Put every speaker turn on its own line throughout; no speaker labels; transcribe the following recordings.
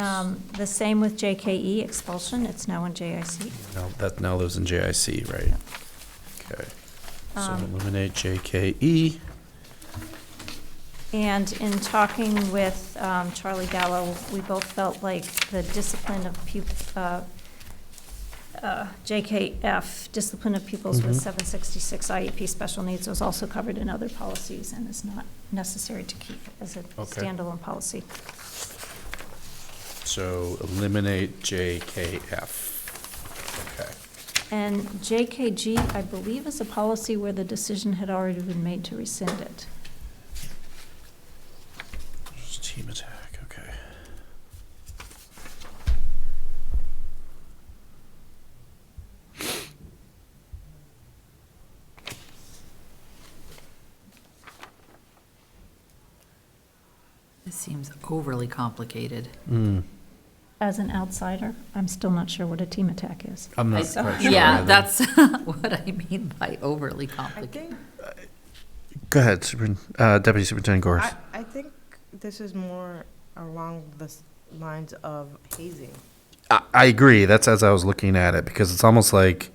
Um, The same with JKE expulsion, it's now in JIC.
Now, that now lives in JIC, right? Okay. So
Um,
eliminate E, JKE.
And in talking with um, Charlie Gallo, we both felt like the discipline of pup, uh, uh, JKF, discipline of pupils with
Mhm.
766 IEP E special needs was also covered in other policies and is not necessary to keep as a
Okay.
standalone policy.
So eliminate JKF. Okay.
And JKG, I believe, is a policy where the decision had already been made to rescind it.
Just Team attack, okay.
This seems overly complicated.
Mm,
As an outsider, I'm still not sure what a team attack is.
I'm
I-
not quite sure.
Yeah,
either.
that's what I mean by overly complicated.
Go ahead, Superin- uh, Deputy Superintendent Gorst.
I, I think this is more along the s- lines of hazing.
I, I agree. That's as I was looking at it because it's almost like.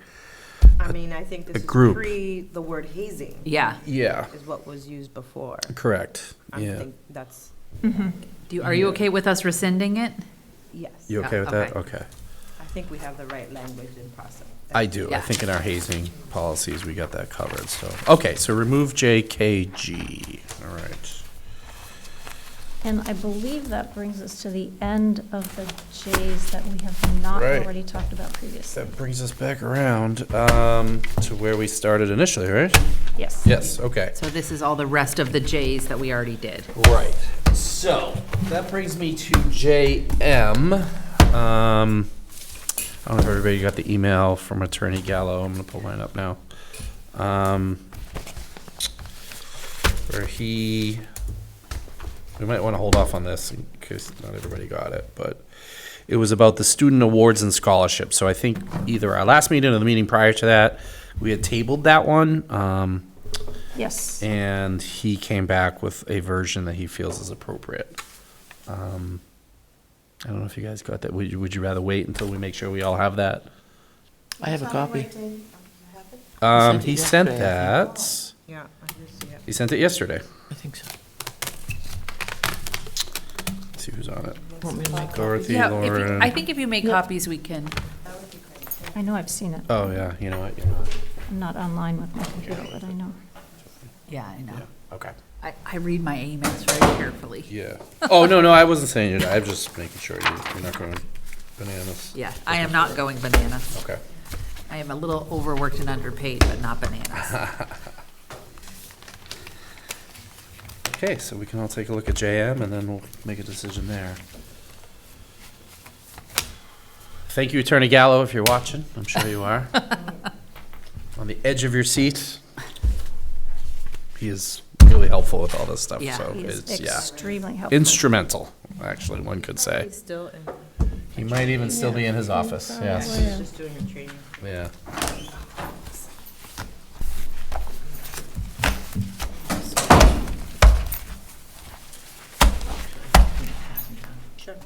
I mean, I think
a
this is
group.
pre the word hazing
Yeah.
Yeah.
is what was used before.
Correct.
I
Yeah.
think that's,
Do you, are you okay with us rescinding it?
yes.
You
Yeah,
okay with that?
okay.
Okay.
I think we have the right language in process.
I do. I
Yeah.
think in our hazing policies, we got that covered, so. Okay, so remove JKG. All right.
And I believe that brings us to the end of the J's that we have not
Right.
already talked about previously.
That brings us back around um, to where we started initially, right?
Yes.
Yes, okay.
So this is all the rest of the J's that we already did.
Right. So that brings me to JM. Um, I don't know if everybody got the email from Attorney Gallo. I'm going to pull mine up now. Um, where he, we might want to hold off on this in case not everybody got it, but it was about the student awards and scholarships. So I think either our last meeting or the meeting prior to that, we had tabled that one. Um,
Yes.
and he came back with a version that he feels is appropriate. Um, I don't know if you guys got that. Would you, would you rather wait until we make sure we all have that?
I have a copy.
Um,
sent it
he sent
yesterday,
that.
Yeah, I just see it.
He sent it yesterday.
I think so.
Let's see who's on it.
Want me to make-
Dorothy,
Yeah, if you- I
Lauren.
think if you make
Yep.
copies, we can.
I know I've seen it.
Oh, yeah, you know what? you're not.
I'm not online with my computer, but I know.
Yeah, I know.
Okay.
I, I read my emails very carefully.
Yeah. Oh, no, no, I wasn't saying it. I'm just making sure you- you're not going bananas.
Yeah, I am not going bananas.
Okay.
I am a little overworked and underpaid, but not bananas.
Okay, so we can all take a look at JM and then we'll make a decision there. Thank you, Attorney Gallo, if you're watching. I'm sure you are. On the edge of your seat. He is really helpful with all this stuff,
Yeah,
so
He is
it's, yeah.
extremely helpful.
Instrumental, actually, one could say.
Still, in- Oh,
He might even still be in his office, yes,
she's just doing her training.
yeah.
Sure.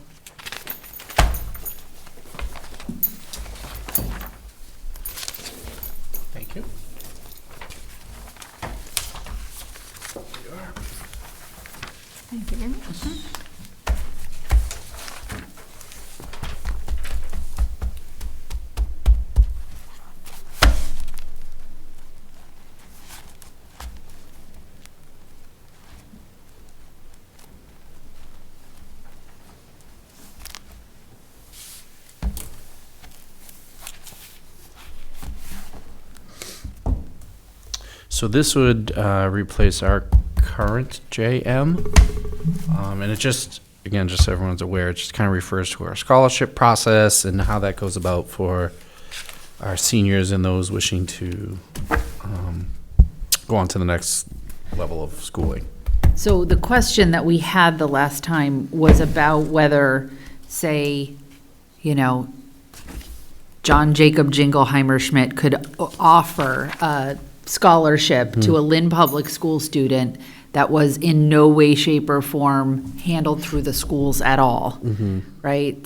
Thank you.
Thank you very much.
So this would uh, replace our current JM. Um, And it just, again, just so everyone's aware, it just kind of refers to our scholarship process and how that goes about for our seniors and those wishing to um, go on to the next level of schooling.
So the question that we had the last time was about whether, say, you know, John Jacob Jingleheimer Schmidt could o- offer a scholarship to a Lynn Public School student that was in no way, shape, or form handled through the schools at all, right?